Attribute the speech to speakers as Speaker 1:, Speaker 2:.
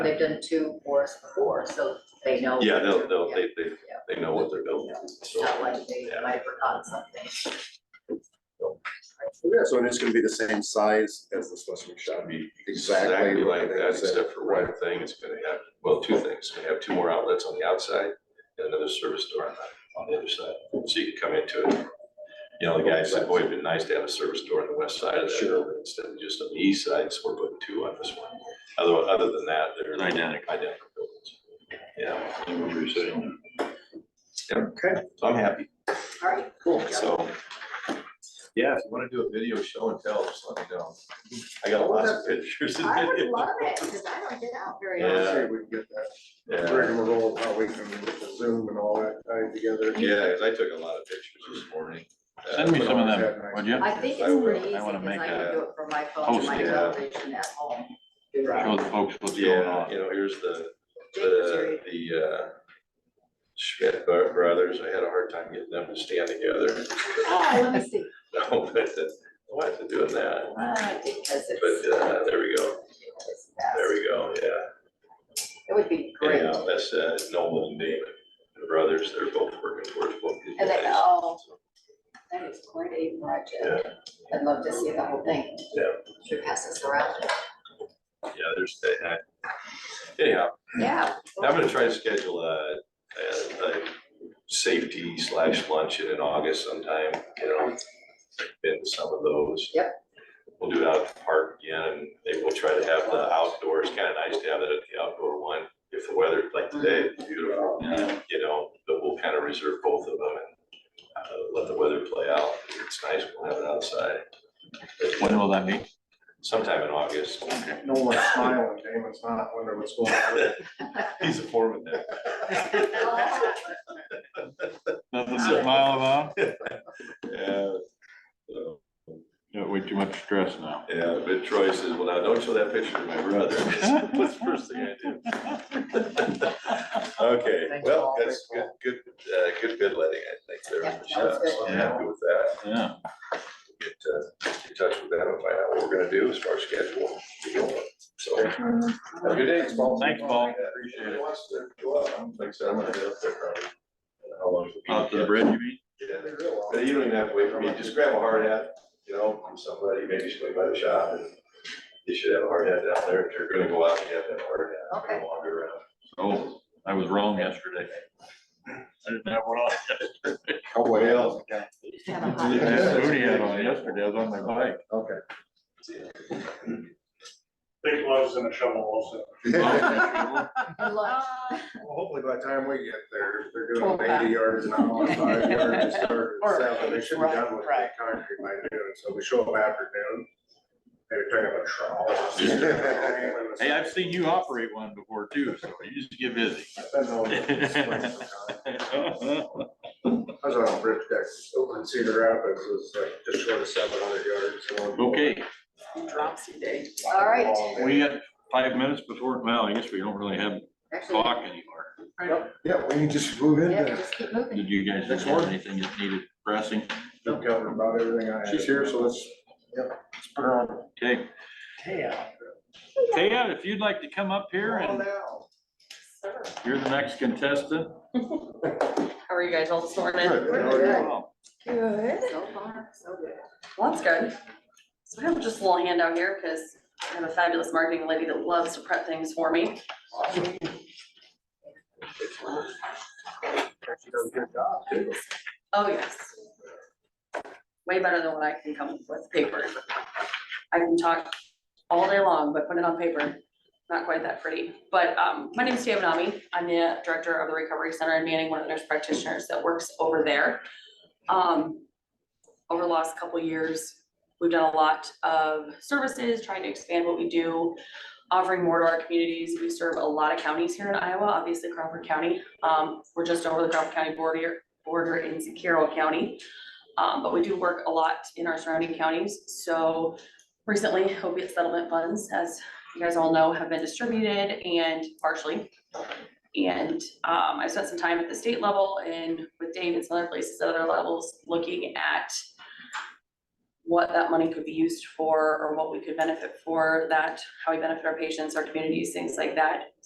Speaker 1: They've done two for us before, so they know.
Speaker 2: Yeah, they'll, they'll,
Speaker 1: Yeah,
Speaker 2: they, they, they know what they're building,
Speaker 1: It's
Speaker 2: so.
Speaker 1: not like they might have forgotten something.
Speaker 3: Yeah, so it is gonna be the same size as the specimen shot.
Speaker 2: It'll be
Speaker 3: Exactly
Speaker 2: Exactly
Speaker 3: what
Speaker 2: like
Speaker 3: they
Speaker 2: that,
Speaker 3: said.
Speaker 2: except for one thing, it's gonna have, well, two things, it's gonna have two more outlets on the outside and another service door on the, on the other side, so you can come into it. You know, the guy said, boy, it'd been nice to have a service door on the west side of that
Speaker 3: Sure.
Speaker 2: building instead of just on the east side, so we're putting two on this one. Other, other than that, they're.
Speaker 4: Identical.
Speaker 2: Identical buildings. Yeah,
Speaker 3: Okay.
Speaker 2: so I'm happy,
Speaker 1: All right, cool.
Speaker 2: so. Yeah, if you wanna do a video show and tell, just let me know. I got lots of pictures and
Speaker 1: I would
Speaker 2: videos.
Speaker 1: love it, because I don't get out very
Speaker 2: Yeah.
Speaker 1: often.
Speaker 3: Let's see if we can get that
Speaker 2: Yeah.
Speaker 3: rigmarole, how we can get the Zoom and all that tied together.
Speaker 2: Yeah, because I took a lot of pictures this morning. Uh,
Speaker 4: Send me some of them, would you?
Speaker 1: I think
Speaker 2: I
Speaker 1: it's
Speaker 2: will.
Speaker 1: pretty easy,
Speaker 4: I
Speaker 1: because
Speaker 4: wanna
Speaker 1: I
Speaker 4: make
Speaker 1: can
Speaker 2: a
Speaker 1: do it from my phone to
Speaker 4: post,
Speaker 1: my
Speaker 2: yeah.
Speaker 1: television at home. Do that.
Speaker 4: Show the folks what's going
Speaker 2: Yeah,
Speaker 4: on.
Speaker 2: you know, here's the,
Speaker 1: Jake was here.
Speaker 2: the, the uh, Schmidt bro- brothers, I had a hard time getting them to stand together.
Speaker 1: Oh, let me see.
Speaker 2: No, but uh, why is it doing that?
Speaker 1: Ah, Because it's.
Speaker 2: But uh, there we go,
Speaker 1: it's fast.
Speaker 2: there we go, yeah.
Speaker 1: It would be great.
Speaker 2: Anyhow, that's uh, Nolan and David, the brothers, they're both working towards both these
Speaker 1: And they,
Speaker 2: guys.
Speaker 1: oh, that is quite a project. I'd love to see the whole thing.
Speaker 2: Yeah.
Speaker 1: Should pass this around.
Speaker 2: Yeah, there's, uh, uh, anyhow,
Speaker 1: Yeah.
Speaker 2: I'm gonna try to schedule a, a, a safety slash luncheon in August sometime, you know, been to some of those.
Speaker 1: Yep.
Speaker 2: We'll do it out at the park again, and maybe we'll try to have the outdoors, kinda nice to have that at the outdoor one, if the weather, like today, it's beautiful,
Speaker 4: Yeah.
Speaker 2: you know, but we'll kinda reserve both of them and uh, let the weather play out, If it's nice, we'll have it outside.
Speaker 4: When will that be?
Speaker 2: Sometime in August,
Speaker 3: No one's smiling, Damon's not, I wonder what's going on.
Speaker 2: he's a foreman there.
Speaker 1: Oh.
Speaker 4: Nothing to smile about?
Speaker 2: Yeah, so.
Speaker 4: Got way too much stress now.
Speaker 2: Yeah, but Troy says, well, now don't show that picture to my brother. That's the first thing I do. Okay,
Speaker 1: Thank you
Speaker 2: well,
Speaker 1: all.
Speaker 2: that's good, good, uh, good bid letting, I think, there
Speaker 1: Yeah, that
Speaker 2: for
Speaker 1: was
Speaker 2: Shep, so I'm
Speaker 4: good.
Speaker 2: happy with that.
Speaker 4: Yeah,
Speaker 2: Get, uh, in touch with them and find out what we're gonna do as far as schedule. So, have a good day, Paul.
Speaker 4: Thanks, Paul.
Speaker 2: Appreciate it. Wants to go out, I'm- Like I said, I'm gonna head up there probably. How long is it?
Speaker 4: out to the bridge, you mean?
Speaker 2: Yeah. But you don't even have to wait for me, just grab a hard hat, you know, from somebody, maybe somebody by the shop, and you should have a hard hat down there, if you're gonna go out, you have to have a hard hat.
Speaker 1: Okay.
Speaker 2: Wander around.
Speaker 4: Oh, I was wrong yesterday. I didn't have one on.
Speaker 3: Cowboy
Speaker 2: Well,
Speaker 1: Have a
Speaker 4: I
Speaker 1: hot-
Speaker 4: didn't have a booty hat on yesterday, I was on my bike.
Speaker 3: Okay.
Speaker 5: Big gloves and a shovel also.
Speaker 3: Well,
Speaker 1: And lunch.
Speaker 3: Hopefully by the time we get there, if they're
Speaker 1: Pull
Speaker 3: doing
Speaker 1: back.
Speaker 3: eighty yards an hour, five yards, they start
Speaker 6: Or-
Speaker 3: at seven, they should be done with the
Speaker 6: right,
Speaker 3: concrete by noon, so we show up after noon. Maybe pick up a trowel.
Speaker 4: Hey, I've seen you operate one before too, so you just get busy.
Speaker 3: I've been on the swing sometime. I was on a bridge deck, open Cedar Rapids, it was like just short of seven hundred yards. so-
Speaker 4: Okay,
Speaker 6: Dropsy day.
Speaker 1: All right.
Speaker 4: we got five minutes before, well, I guess we don't really have
Speaker 1: Actually,
Speaker 4: clock anymore.
Speaker 3: Yep, Yeah, we can just move in
Speaker 1: yeah,
Speaker 3: there.
Speaker 1: just keep moving.
Speaker 4: Did you guys
Speaker 3: Next
Speaker 4: have
Speaker 3: one.
Speaker 4: anything that needed pressing?
Speaker 3: I've covered about everything I had. She's here, so let's, yep, let's put her on.
Speaker 4: Okay, Taya, if you'd like to come up here and you're the next contestant.
Speaker 6: How are you guys all this morning?
Speaker 3: Good.
Speaker 4: Wow.
Speaker 6: Good.
Speaker 1: So far, so good.
Speaker 6: Well, that's good. So I have just a little handout here because I have a fabulous marketing lady that loves to prep things for me. Oh, yes. Way better than what I can come up with paper. I can talk all day long, but put it on paper, not quite that pretty. But um, my name is Tia Manami. I'm the director of the Recovery Center in Manning, one of the nurse practitioners that works over there. Um, over the last couple of years, we've done a lot of services, trying to expand what we do, offering more to our communities. We serve a lot of counties here in Iowa, obviously Crawford County. Um, we're just over the Crawford County border, border in Carroll County. Um, but we do work a lot in our surrounding counties, so recently opiate settlement funds, as you guys all know, have been distributed and partially. And, um, I spent some time at the state level and with Dave and some other places at other levels, looking at what that money could be used for, or what we could benefit for that, how we benefit our patients, our communities, things like that.